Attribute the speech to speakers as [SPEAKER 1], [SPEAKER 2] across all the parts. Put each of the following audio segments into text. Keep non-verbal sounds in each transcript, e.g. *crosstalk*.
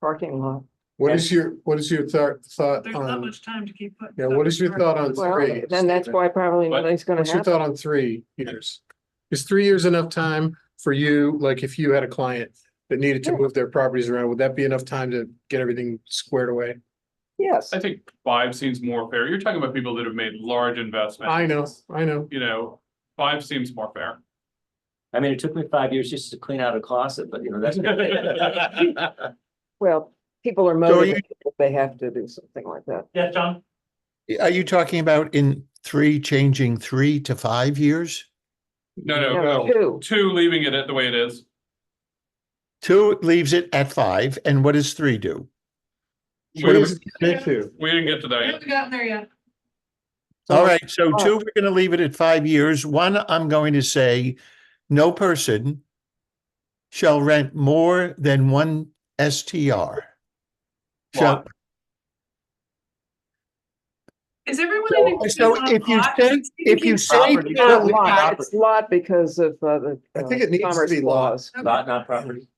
[SPEAKER 1] parking lot.
[SPEAKER 2] What is your, what is your thought, thought
[SPEAKER 3] There's not
[SPEAKER 2] on,
[SPEAKER 3] much time to keep putting.
[SPEAKER 2] yeah,
[SPEAKER 3] stuff
[SPEAKER 2] what is
[SPEAKER 3] in
[SPEAKER 2] your
[SPEAKER 3] there.
[SPEAKER 2] thought on
[SPEAKER 1] Well,
[SPEAKER 2] three?
[SPEAKER 1] then that's why probably
[SPEAKER 4] What?
[SPEAKER 1] nothing's gonna
[SPEAKER 2] What's your thought
[SPEAKER 1] happen.
[SPEAKER 2] on three years? Is three years enough time for you, like if you had a client that needed to
[SPEAKER 1] Yeah.
[SPEAKER 2] move their properties around, would that be enough time to get everything squared away?
[SPEAKER 1] Yes,
[SPEAKER 4] I think five seems more fair. You're talking about people that have made large investments.
[SPEAKER 2] I know, I know.
[SPEAKER 4] You know, five seems more fair.
[SPEAKER 5] I mean, it took me five years just to clean out a closet, but you know, that's.
[SPEAKER 6] *laughs*
[SPEAKER 1] well, people are
[SPEAKER 7] you-
[SPEAKER 1] motivated, if they have to do something like that.
[SPEAKER 3] Yeah, John,
[SPEAKER 7] Are you talking about in three, changing three to five years?
[SPEAKER 4] No, no,
[SPEAKER 1] No,
[SPEAKER 4] no.
[SPEAKER 1] two,
[SPEAKER 4] Two, leaving it at the way it is.
[SPEAKER 7] Two leaves it at five, and what does three do?
[SPEAKER 2] What is it
[SPEAKER 3] Yeah.
[SPEAKER 2] to?
[SPEAKER 4] We didn't get to
[SPEAKER 3] we
[SPEAKER 4] that yet.
[SPEAKER 3] haven't gotten there yet.
[SPEAKER 7] All right, so
[SPEAKER 1] five.
[SPEAKER 7] two, we're gonna leave it at five years. One, I'm going to say, no person shall rent more than one STR. Shall,
[SPEAKER 3] Is everyone?
[SPEAKER 7] So-
[SPEAKER 3] in agreement
[SPEAKER 7] so
[SPEAKER 3] on
[SPEAKER 7] if you
[SPEAKER 3] lot?
[SPEAKER 7] say- if you say
[SPEAKER 5] Property.
[SPEAKER 1] not
[SPEAKER 7] purely-
[SPEAKER 1] lot, it's lot because of uh, the.
[SPEAKER 2] I
[SPEAKER 1] uh,
[SPEAKER 2] think it needs to
[SPEAKER 1] commerce
[SPEAKER 2] be lot.
[SPEAKER 1] laws.
[SPEAKER 5] Lot, not
[SPEAKER 6] *laughs*
[SPEAKER 5] property.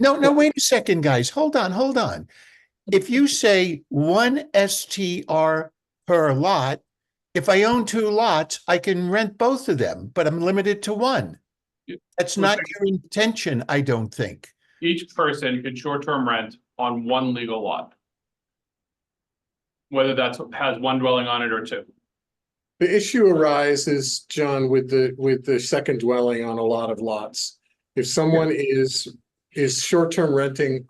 [SPEAKER 7] No, no, wait a second, guys. Hold on, hold on. If you say one STR per lot, if I own two lots, I can rent both of them, but I'm limited to one.
[SPEAKER 4] Yeah.
[SPEAKER 7] That's
[SPEAKER 4] We're
[SPEAKER 7] not your intention, I don't think.
[SPEAKER 4] Each person can short-term rent on one legal lot. Whether that's, has one dwelling on it or two.
[SPEAKER 2] The issue arises, John, with the, with the second dwelling on a lot of lots. If someone is, is short-term renting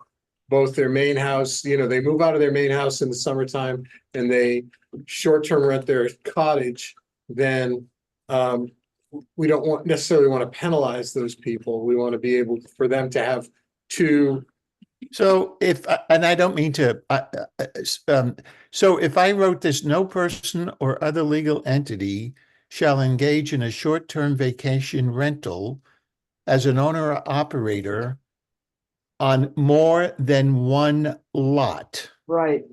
[SPEAKER 2] both their main house, you know, they move out of their main house in the summertime and they short-term rent their cottage, then um, we don't want, necessarily want to penalize those people. We want to be able for them to have two,
[SPEAKER 7] So if, and I don't mean to, uh, uh, s- um, so if I wrote this, no person or other legal entity shall engage in a short-term vacation rental as an owner or operator on more than one lot.
[SPEAKER 1] Right,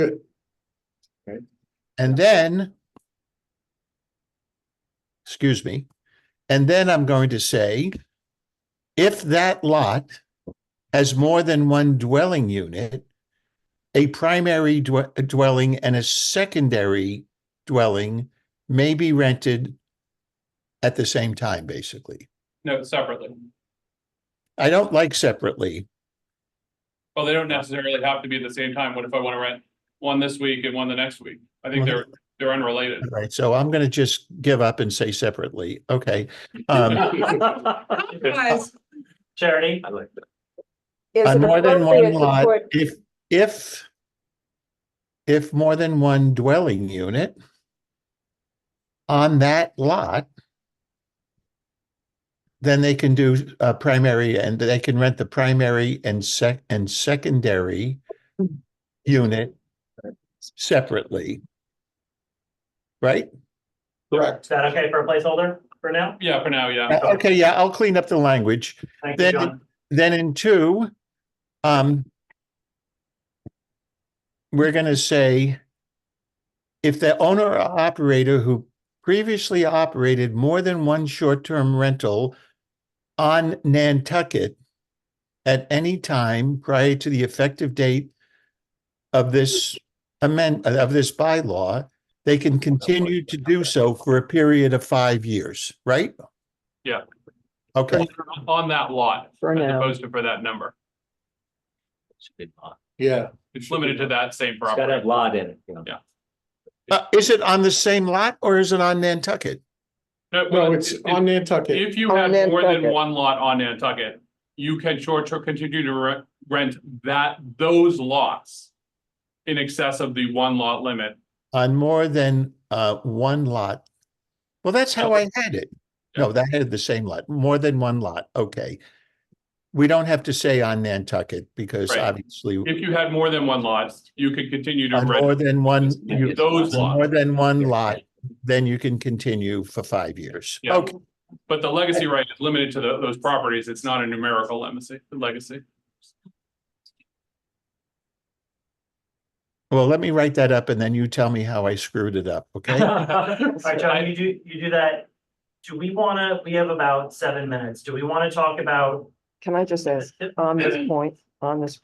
[SPEAKER 7] Uh,
[SPEAKER 2] good,
[SPEAKER 7] And then, excuse me, and then I'm going to say, if that lot has more than one dwelling unit, a primary dwe- dwelling and a secondary dwelling may be rented at the same time, basically.
[SPEAKER 4] No, separately.
[SPEAKER 7] I don't like separately.
[SPEAKER 4] Well, they don't necessarily have to be at the same time. What if I want to rent one this week and one the next week? I think they're, they're unrelated.
[SPEAKER 7] All Right, so I'm going to just give up and say separately. Okay. Um,
[SPEAKER 3] Compromise.
[SPEAKER 5] Charity. I like that.
[SPEAKER 1] Is
[SPEAKER 7] On
[SPEAKER 1] it
[SPEAKER 7] more than one
[SPEAKER 1] appropriate to
[SPEAKER 7] lot,
[SPEAKER 1] put-
[SPEAKER 7] if, if. If more than one dwelling unit. On that lot. Then they can do uh primary and they can rent the primary and sec- and secondary. Unit. Separately. Right?
[SPEAKER 2] correct.
[SPEAKER 6] Is that okay for a placeholder for now?
[SPEAKER 4] Yeah, for now, yeah.
[SPEAKER 7] Okay, yeah, I'll clean up the language.
[SPEAKER 6] Thank
[SPEAKER 7] Then-
[SPEAKER 6] you, John.
[SPEAKER 7] then in two, um, we're gonna say if the owner or operator who previously operated more than one short-term rental on Nantucket at any time prior to the effective date of this amend, of this bylaw, they can continue to do so for a period of five years, right?
[SPEAKER 4] Yeah.
[SPEAKER 7] Okay.
[SPEAKER 4] On that lot,
[SPEAKER 1] For
[SPEAKER 4] as
[SPEAKER 1] now.
[SPEAKER 4] opposed to for that number.
[SPEAKER 5] Should be lot.
[SPEAKER 2] Yeah.
[SPEAKER 4] It's limited to that same
[SPEAKER 5] It's gotta have
[SPEAKER 4] property.
[SPEAKER 5] lot in it, you know.
[SPEAKER 4] Yeah.
[SPEAKER 7] Uh, is it on the same lot or is it on Nantucket?
[SPEAKER 4] No,
[SPEAKER 2] No, it's on Nantucket.
[SPEAKER 4] If you
[SPEAKER 1] On
[SPEAKER 4] had more than
[SPEAKER 1] Nantucket.
[SPEAKER 4] one lot on Nantucket, you can short term continue to re- rent that, those lots. In excess of the one lot limit.
[SPEAKER 7] On more than uh one lot? Well, that's how I had it. No, that had the same lot, more than one lot, okay. We don't have to say on Nantucket because
[SPEAKER 4] Right.
[SPEAKER 7] obviously
[SPEAKER 4] If you had more than one lot, you could continue to
[SPEAKER 7] on more
[SPEAKER 4] rent
[SPEAKER 7] than one, you-
[SPEAKER 4] those
[SPEAKER 7] on more
[SPEAKER 4] lots.
[SPEAKER 7] than one lot, then you can continue for five years.
[SPEAKER 4] Yeah.
[SPEAKER 7] Okay,
[SPEAKER 4] But the legacy right is limited to tho- those properties. It's not a numerical legacy, legacy.
[SPEAKER 7] well, let me write that up and then you tell me how I screwed it up, *laughs* okay?
[SPEAKER 6] All right, John, you do, you do that. Do we wanna, we have about seven minutes. Do we wanna talk about
[SPEAKER 7] *clears throat*
[SPEAKER 1] can I just ask, on this point, on this